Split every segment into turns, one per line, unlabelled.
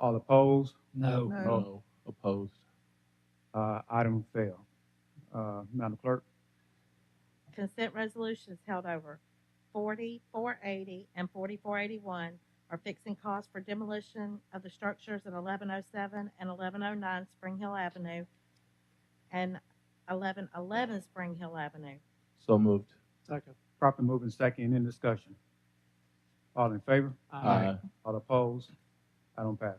All opposed?
No.
No. Opposed?
Uh, Item failed. Uh, Madam Clerk?
Consent resolutions held over. Forty, four eighty, and forty-four eighty-one are fixing costs for demolition of the structures at eleven oh seven and eleven oh nine Spring Hill Avenue and eleven eleven Spring Hill Avenue.
So moved.
Second.
Properly moving second in discussion. All in favor?
Uh,
Aye.
All opposed? Item pass.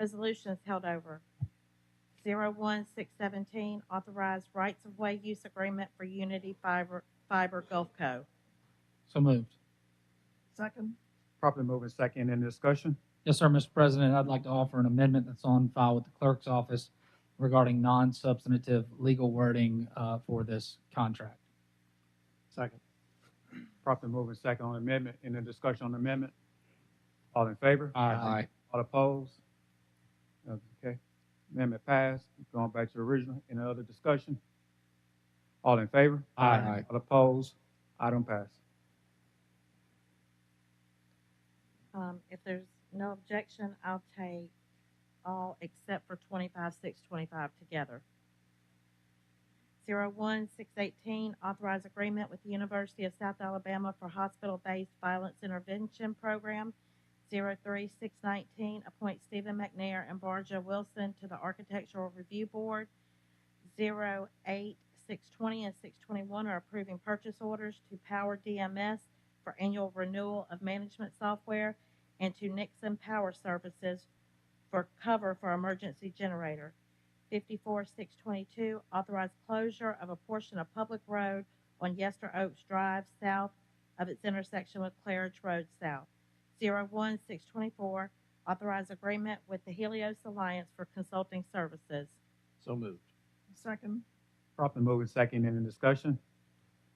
Resolutions held over. Zero one six seventeen, authorized rights-of-way use agreement for Unity Fiber, Fiber Gulf Co.
So moved.
Second.
Properly moving second in discussion.
Yes, sir, Mr. President, I'd like to offer an amendment that's on file with the clerk's office regarding non-substantive legal wording uh, for this contract.
Second.
Properly moving second on amendment, in the discussion on amendment. All in favor?
Aye.
All opposed? Okay, amendment passed, going back to the original, any other discussion? All in favor?
Aye. Aye.
All opposed? Item passed.
Um, if there's no objection, I'll take all except for twenty-five, six, twenty-five together. Zero one, six eighteen, authorize agreement with the University of South Alabama for hospital-based violence intervention program. Zero three, six nineteen, appoint Stephen McNair and Barja Wilson to the Architectural Review Board. Zero eight, six twenty and six twenty-one are approving purchase orders to Power DMS for annual renewal of management software and to Nixon Power Services for cover for emergency generator. 54622, authorized closure of a portion of public road on Yester Oaks Drive south of its intersection with Claridge Road South. 01624, authorized agreement with the Helios Alliance for consulting services.
So moved.
Second.
Properly moving second, in the discussion?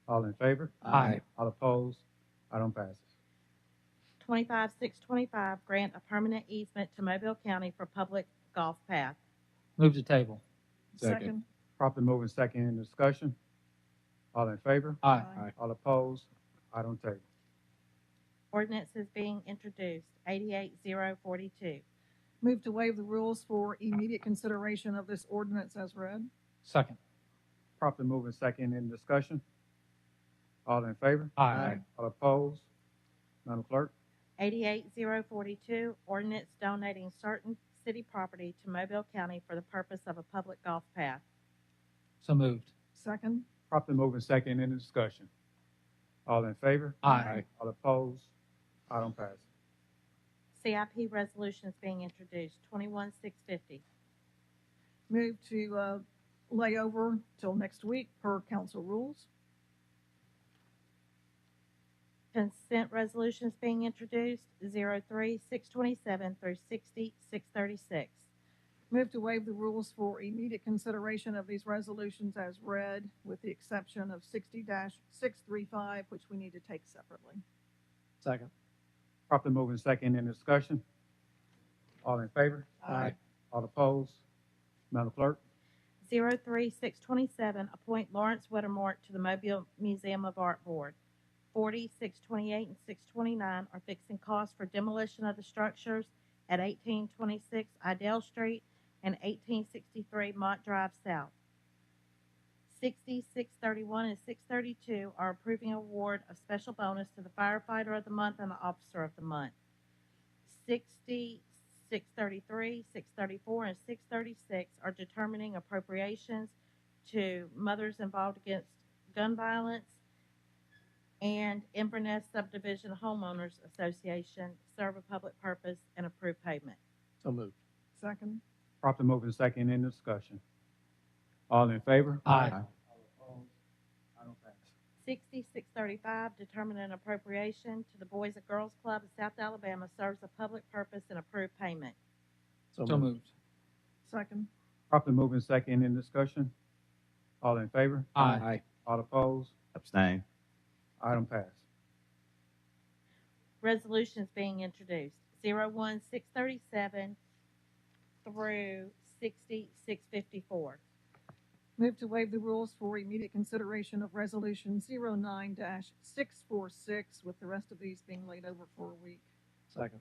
All in favor?
Aye.
All opposed? Item passes.
25625, grant a permanent easement to Mobile County for public golf path.
Move to table.
Second.
Properly moving second, in the discussion? All in favor?
Aye.
All opposed? Item table.
Ordinances being introduced, 88042.
Move to waive the rules for immediate consideration of this ordinance as read.
Second.
Properly moving second, in the discussion? All in favor?
Aye.
All opposed? Madam Clerk?
88042, ordinance donating certain city property to Mobile County for the purpose of a public golf path.
So moved.
Second.
Properly moving second, in the discussion? All in favor?
Aye.
All opposed? Item passes.
CIP resolutions being introduced, 21650.
Move to uh, lay over till next week per council rules.
Consent resolutions being introduced, 03627 through 60636.
Move to waive the rules for immediate consideration of these resolutions as read, with the exception of sixty six three five, which we need to take separately.
Second.
Properly moving second, in the discussion? All in favor?
Aye.
All opposed? Madam Clerk?
03627, appoint Lawrence Weddemore to the Mobile Museum of Art Board. 40, 628, and 629 are fixing costs for demolition of the structures at 1826 Idell Street and 1863 Mott Drive South. 60, 631, and 632 are approving award of special bonus to the firefighter of the month and the officer of the month. 60, 633, 634, and 636 are determining appropriations to mothers involved against gun violence and Inverness Subdivision Homeowners Association serve a public purpose and approve payment.
So moved.
Second.
Properly moving second, in the discussion? All in favor?
Aye.
All opposed? Item passes.
6635, determine an appropriation to the Boys and Girls Club of South Alabama serves a public purpose and approve payment.
So moved.
Second.
Properly moving second, in the discussion? All in favor?
Aye.
All opposed?
Abstain.
Item passed.
resolutions being introduced, 01637 through 60654.
Move to waive the rules for immediate consideration of resolution 09-646, with the rest of these being laid over for a week.
Second.